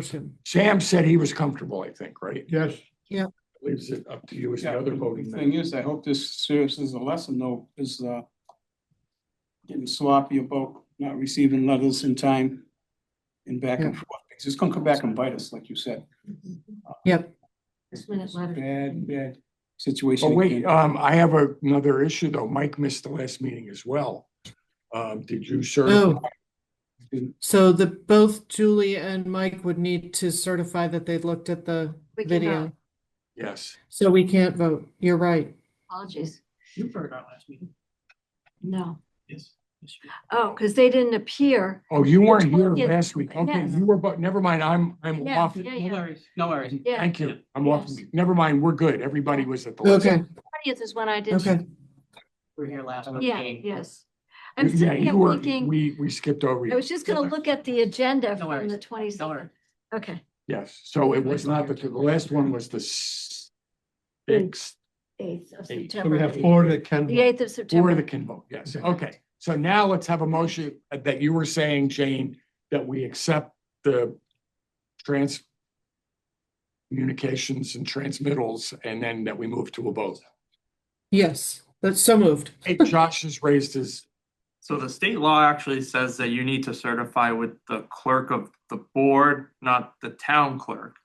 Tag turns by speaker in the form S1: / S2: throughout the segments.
S1: motion.
S2: Sam said he was comfortable, I think, right?
S3: Yes,
S2: Leaves it up to you as the
S4: Yeah,
S2: other
S4: but
S2: voting
S4: the Thing
S2: member.
S4: is, I hope this serves as a lesson though, is uh. Getting sloppy about not receiving letters in time. And back and forth, because it's gonna come back and bite us, like you said.
S5: This minute letter.
S4: Bad, bad situation.
S2: Oh, wait,
S4: again.
S2: um, I have a- another issue though. Mike missed the last meeting as well. Um, did you serve?
S1: Oh, so the, both Julie and Mike would need to certify that they looked at the
S5: We cannot.
S1: video.
S2: Yes.
S1: So we can't vote. You're right.
S5: Apologies.
S6: You heard our last meeting.
S5: No.
S6: Yes. yes, you-
S5: Oh, because they didn't appear.
S2: Oh, you weren't here
S5: Yes.
S2: last week. Okay,
S5: Yes.
S2: you were, but never mind, I'm, I'm
S5: Yeah,
S2: off.
S5: yeah,
S6: No
S5: yeah.
S6: worries, no worries.
S5: Yeah,
S2: Thank you. I'm off.
S5: Yes.
S2: Never mind, we're good. Everybody was at the. last-
S1: Okay,
S5: twentieth is when I did.
S1: okay.
S6: We We're here last week.
S5: Yeah, yes. I'm
S2: Yeah,
S5: sitting
S2: you
S5: here
S2: were,
S5: thinking,
S2: we, we skipped over
S5: I
S2: you.
S5: was just gonna look at the agenda
S6: No
S5: from
S6: worries.
S5: the twenty
S6: Don't worry.
S5: second. Okay,
S2: Yes, so it was not the, the last one was the s- sixth,
S5: eighth of
S2: Eight.
S3: so we
S5: September.
S3: have four that
S5: The
S3: can,
S5: eighth of
S2: or the
S5: September.
S2: can vote, yes, okay. So now let's have a motion that you were saying, Jane, that we accept the trans communications and transmittals, and then that we move to a vote.
S1: Yes, that's so moved.
S2: Hey, Josh has raised his,
S7: So the state law actually says that you need to certify with the clerk of the board, not the town clerk.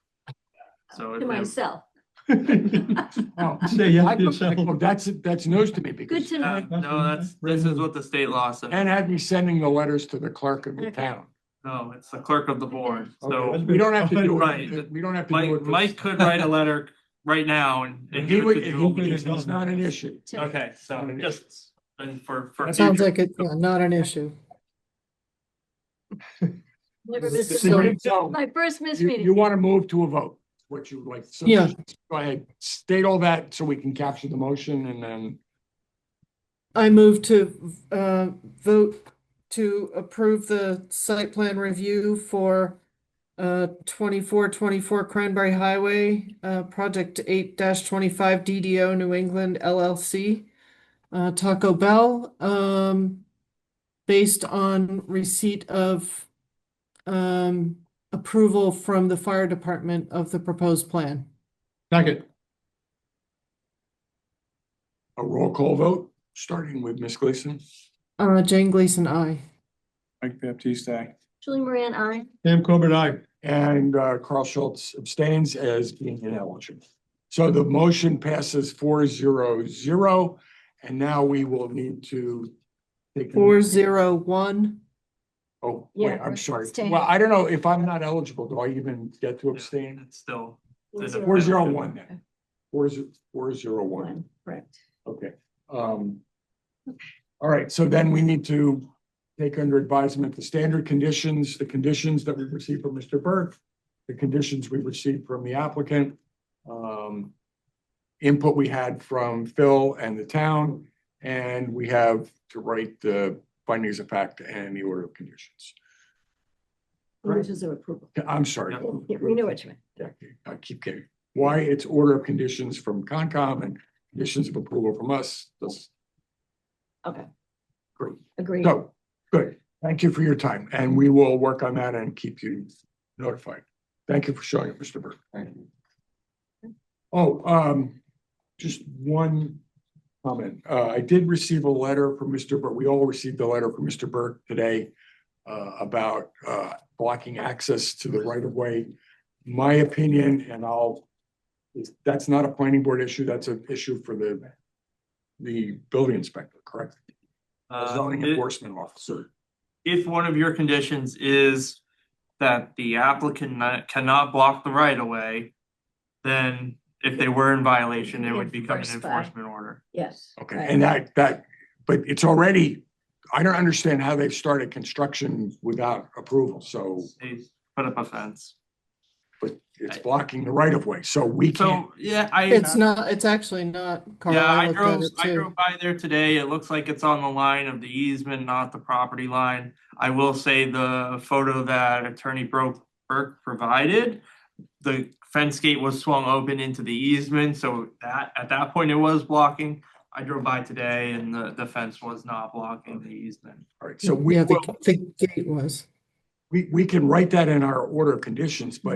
S7: So
S5: To
S7: it- it-
S5: myself.
S2: oh,
S3: say yes
S2: I
S3: to
S2: looked
S3: yourself.
S2: like, well, that's, that's news to me
S5: Good
S2: because
S5: to
S7: uh,
S5: know.
S7: no, that's, this is what the state law says.
S2: and had me sending the letters to the clerk of the town.
S7: No, it's the clerk of the board. So
S3: Okay.
S2: We don't have to do it,
S7: Right.
S2: we don't have to do
S7: Mike,
S2: it.
S7: Mike could write a letter right now and. and
S2: He
S7: give it
S2: would,
S7: to
S2: he
S7: Jewel
S2: would,
S7: because-
S2: it's not an issue.
S5: To-
S7: Okay, so just, and for, for.
S2: That
S1: Sounds
S7: future-
S1: like it's yeah, not an issue.
S5: Never miss a
S1: So-
S5: meeting.
S2: So
S5: My first miss
S2: you, you
S5: meeting.
S2: want to move to a vote, what you would like. So
S1: Yeah.
S2: Go ahead, state all that so we can capture the motion and then,
S1: I move to uh, vote to approve the site plan review for uh, 2424 Cranberry Highway, uh, Project 8-25 DDO New England LLC, uh, Taco Bell, um, based on receipt of um, approval from the fire department of the proposed plan.
S3: second,
S2: a roll call vote, starting with Ms. Gleason.
S1: Uh, Jane Gleason, aye.
S4: Mike Baptiste, aye.
S5: Julie Moran, I.
S3: Sam Corbett, I,
S2: And uh, Carl Schultz abstains as being ineligible. So the motion passes four zero zero, and now we will need to. take
S1: Four zero one.
S2: Oh, wait,
S5: Yeah,
S2: I'm sorry.
S5: abstain.
S2: Well, I don't know if I'm not eligible, do I even get to abstain?
S7: It's still.
S2: Four zero one then. Four zero, four zero one,
S5: One, correct.
S2: okay. Um. All right, so then we need to take under advisement the standard conditions, the conditions that we received from Mr. Burke, the conditions we received from the applicant, um, input we had from Phil and the town, and we have to write the findings of fact and the order of conditions.
S5: Conditions of approval.
S2: I'm sorry.
S5: Yeah, we know what you meant.
S2: Yeah, I keep getting, why it's order of conditions from Concom and conditions of approval from us, that's
S5: Okay,
S2: great.
S5: agreed.
S2: So, good, thank you for your time, and we will work on that and keep you notified. Thank you for showing up, Mr. Burke. Thank you. Oh, um, just one comment, uh, I did receive a letter from Mr. Burke, we all received a letter from Mr. Burke today uh, about, uh, blocking access to the right of way. My opinion, and I'll, that's not a planning board issue, that's an issue for the, the building inspector, correct?
S7: uh,
S2: Zoning
S7: it-
S2: enforcement officer.
S7: if one of your conditions is that the applicant not- cannot block the right of way, then if they were in violation, it would become an
S5: Enforced by-
S7: enforcement order.
S5: Yes.
S2: Okay,
S5: right.
S2: and that, that, but it's already, I don't understand how they've started construction without approval, so
S7: They put up a fence.
S2: it's blocking the right of way, so we can't.
S7: So, yeah, I.
S1: It's not, it's actually not, Carl.
S7: Yeah,
S1: I
S7: I
S1: looked at
S7: drove,
S1: it
S7: I
S1: too.
S7: drove by there today. It looks like it's on the line of the easement, not the property line. I will say the photo that attorney Bro- Burke provided. The fence gate was swung open into the easement, so that, at that point it was blocking. I drove by today and the, the fence was not blocking the easement.
S2: All right, so we
S1: Mm, Yeah,
S2: will,
S1: the, the gate was.
S2: we, we can write that in our order of conditions, but